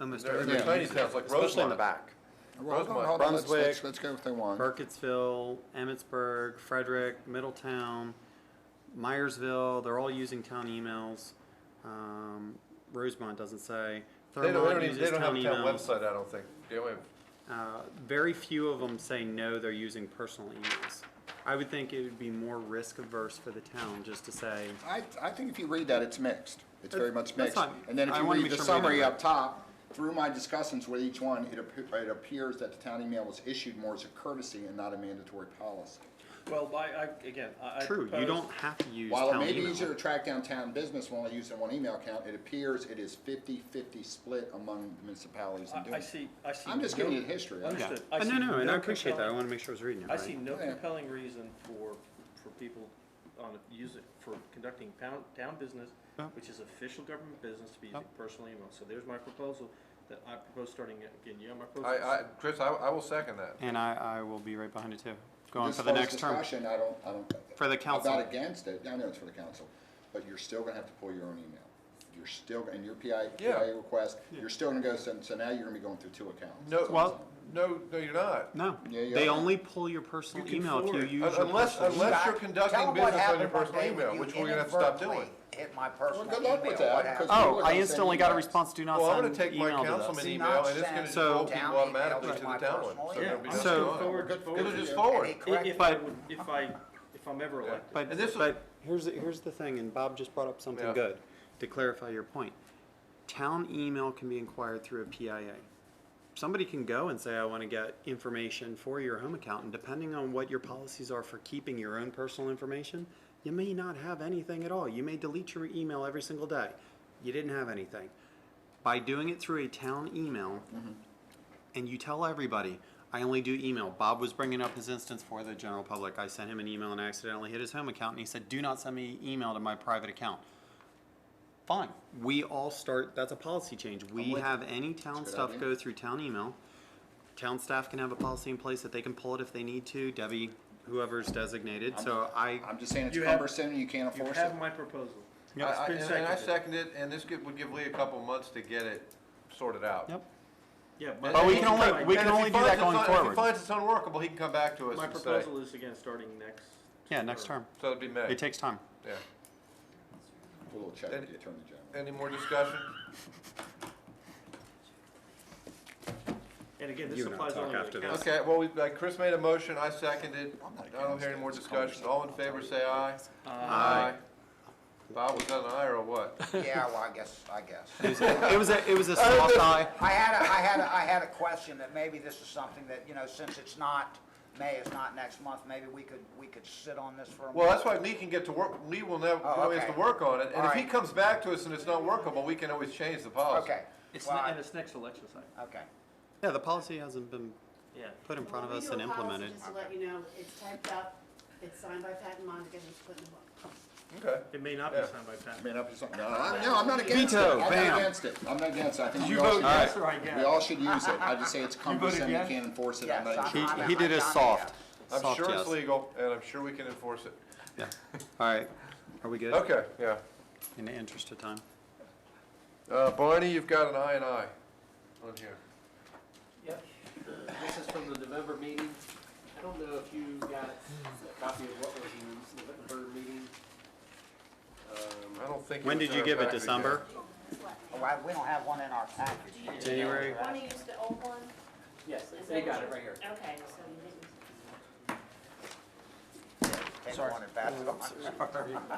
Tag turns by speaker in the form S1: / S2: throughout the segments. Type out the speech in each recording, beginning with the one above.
S1: Almost
S2: They're
S1: everything.
S2: they're tiny towns, like Rosemont.
S3: Especially in the back.
S4: Well, hold on,
S2: Rosemont,
S4: hold on, let's,
S3: Brunswick.
S4: let's, let's go with the one.
S1: Burkittsville, Emmitsburg, Frederick, Middletown, Myersville, they're all using town emails. Um, Rosemont doesn't say.
S2: They don't, they
S1: Thurmont
S2: don't even, they
S1: uses
S2: don't have a town
S1: emails.
S2: website, I don't think. They don't have,
S1: Uh, very few of them say no, they're using personal emails. I would think it would be more risk averse for the town just to say,
S4: I, I think if you read that, it's mixed. It's very much
S1: That's
S4: mixed.
S1: fine.
S4: And then if
S1: I
S4: you
S1: wanna
S4: read
S1: make
S4: the
S1: sure I'm reading
S4: summary
S1: it
S4: up top, through my discussions with each one, it appear, it appears that the town email was issued more as a courtesy and not a mandatory policy.
S5: Well, by, I, again, I. I
S1: true, you
S5: propose-
S1: don't have to use
S4: While it
S1: town
S4: may be
S1: email.
S4: easier to track down town business when only using one email account, it appears it is 50-50 split among municipalities in
S5: I,
S4: doing
S5: I
S4: it.
S5: see, I see.
S4: I'm just giving
S5: no-
S4: you the history. I-
S1: Yeah.
S5: Understood.
S1: Uh,
S5: see
S1: No, no, and I appreciate that, I
S5: compelling-
S1: wanna make sure I was reading it
S5: I
S1: right.
S5: see no
S4: Yeah.
S5: compelling reason for, for people on, using, for conducting town, town business,
S1: No.
S5: which is official government business, to be using
S1: No.
S5: personal email. So there's my proposal, that I propose starting, again, you have my
S2: I,
S5: proposal.
S2: I, Chris, I, I will second that.
S1: And I, I will be right behind it too, going
S4: This
S1: for the
S4: first
S1: next term.
S4: Discussion, I don't, I don't.
S1: For the council.
S4: I'm not against it, I know it's for the council, but you're still gonna have to pull your own email. You're still, and your PI,
S2: Yeah.
S4: PIA request, you're still gonna go, so, so now you're gonna be going through two accounts.
S2: No,
S1: Well-
S2: no, no, you're not.
S1: No,
S4: Yeah, you
S1: they
S4: are.
S1: only pull your personal
S5: You can
S1: email if you
S5: forward.
S1: use your
S2: Un- Unless,
S1: personal email.
S2: unless you're
S3: Tell
S2: conducting
S3: 'em what
S2: business on your
S3: happened one
S2: personal
S3: day when
S2: email,
S3: you
S2: which we're gonna have to stop doing.
S3: inadvertently Hit my personal
S4: good
S3: email.
S4: luck with that,
S3: What
S4: 'cause-
S3: happened?
S1: Oh, I instantly got a response, do not
S2: Well, I'm
S1: send
S2: gonna take my
S1: email to
S2: councilman
S1: this.
S2: email and it's gonna just
S1: So-
S2: go people automatically to
S3: Down
S2: the
S3: email
S2: town
S3: to
S2: one.
S3: my
S2: So it'll be
S5: Yeah,
S2: done.
S1: so-
S2: Fine.
S5: Forward,
S4: Good-
S5: forward.
S2: It'll just
S3: And
S2: forward.
S3: he
S5: If-
S3: corrected
S5: If I
S1: But-
S5: would, if I, if I'm ever
S2: Yeah.
S5: elected.
S1: But,
S2: And this was-
S1: but here's, the- here's the thing, and Bob just brought up something
S2: Yeah.
S1: good to clarify your point. Town email can be inquired through a PIA. Somebody can go and say, I want to get information for your home account, and depending on what your policies are for keeping your own personal information, you may not have anything at all. You may delete your email every single day. You didn't have anything. By doing it through a town email,
S4: Mm-hmm.
S1: and you tell everybody, I only do email. Bob was bringing up his instance for the general public. I sent him an email and I accidentally hit his home account, and he said, Do not send me email to my private account. Fine. We all start, that's a policy change. We have any town
S4: That's a good
S1: stuff
S4: idea.
S1: go through town email. Town staff can have a policy in place that they can pull it if they need to. Debbie, whoever's designated. So I,
S4: I'm just saying it's
S5: You have-
S4: cumbersome, and you can't
S5: You
S4: enforce it.
S5: have my proposal.
S2: I- I-
S5: It's been
S2: And and I
S5: seconded.
S2: second it, and this give- would give Lee a couple months to get it sorted out.
S1: yep.
S5: Yeah. my-
S1: But we can only-
S5: my-
S1: we can
S2: And if he
S1: only do
S2: finds
S1: that
S2: it's
S1: going
S2: un- If
S1: forward.
S2: he finds it's unworkable, he can come back to us
S5: My
S2: and say.
S5: proposal is again, starting next.
S1: Yeah, next term.
S2: So it'd be May.
S1: It takes time.
S2: Yeah.
S4: We'll little check with the attorney general.
S2: Any more discussion?
S5: And again, this
S1: You and I
S5: applies
S1: talk
S5: only to
S1: after
S5: the
S1: this.
S5: council.
S2: Okay, well, we, like, Chris made a motion, I seconded.
S3: Oh
S4: I'm not
S2: I don't hear any
S4: against it.
S2: more
S4: It's a
S2: discussion. All in favor, say aye.
S1: Aye.
S2: Bob, was that an aye or a what?
S3: Yeah, well, I guess, I guess.
S1: It was a, it was a soft eye.
S3: I had a, I had a, I had a question that maybe this is something that, you know, since it's not, May is not next month, maybe we could, we could sit on this for a minute.
S2: Well, that's why Lee can get to work, Lee will never,
S3: Oh,
S2: always
S3: okay.
S2: to work on it. And if he
S3: Alright.
S2: comes back to us and it's not workable, we can always change the policy.
S3: Okay.
S5: It's,
S3: Well,
S5: ne-
S3: I-
S5: and it's next election cycle.
S3: Okay.
S1: Yeah, the policy hasn't been
S5: Yeah.
S1: put in front of
S6: Well, we
S1: us
S6: do
S1: and
S6: a policy
S1: implemented.
S6: Just to let you know, it's typed up, it's signed by Pat and Monica, and it's put in the book.
S2: Okay.
S5: It may not be
S2: Yeah.
S5: signed by
S4: I
S5: Pat.
S4: mean, I'm just- no, I'm, no, I'm not against it.
S1: Veto,
S4: I'm not
S1: bam.
S4: against it. I'm not against it. I think
S5: You
S4: we all
S5: vote
S4: should
S5: yes
S4: use
S5: or I
S4: it.
S5: guess?
S4: We all should use it. I just say it's cumbersome, you
S5: yes?
S4: can't enforce it. I'm
S3: Yes,
S4: not
S3: I'm-
S4: interested.
S3: I'm-
S1: He, he did
S3: I'm
S1: a
S3: done
S1: soft,
S3: here.
S2: I'm
S1: soft
S2: sure
S1: yes.
S2: it's legal and I'm sure we can enforce it.
S1: Yeah. All right. Are we good?
S2: Okay, yeah.
S1: In the interest of time.
S2: Uh, Barney, you've got an aye and aye on here.
S7: Yep, Uh, this is from the November meeting. I don't know if you got a copy of what was in the November meeting. Um,
S2: I don't think.
S1: When
S2: was
S1: did
S2: in
S1: you
S2: our
S1: give it,
S2: package yet.
S1: December?
S3: Oh, I- we don't have one in our package.
S1: January?
S6: Want to use the old one?
S7: Yes, they got it right here.
S6: Okay, so you didn't.
S3: Take one and pass it on.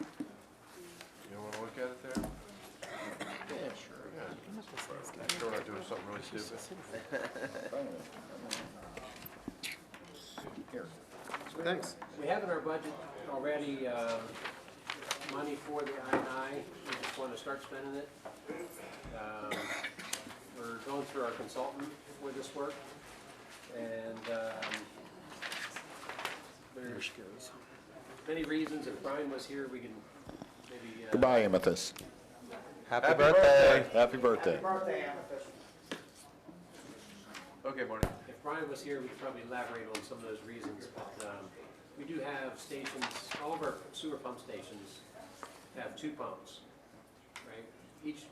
S2: You wanna look at it there?
S4: Yeah, sure.
S2: Sure we're not doing something really stupid.
S4: Here.
S1: Thanks.
S7: We have in our budget already uh, money for the I and I, we just want to start spending it. Um, We're going through our consultant for this work, and um, there's many reasons, if Brian was here, we can maybe. uh,
S4: Goodbye, Amethyst.
S2: Happy birthday.
S4: Happy birthday.
S3: Happy birthday, Amethyst.
S2: Okay, Barney.
S7: If Brian was here, we could probably elaborate on some of those reasons, but um, we do have stations, all of our sewer pump stations have two pumps, right? Each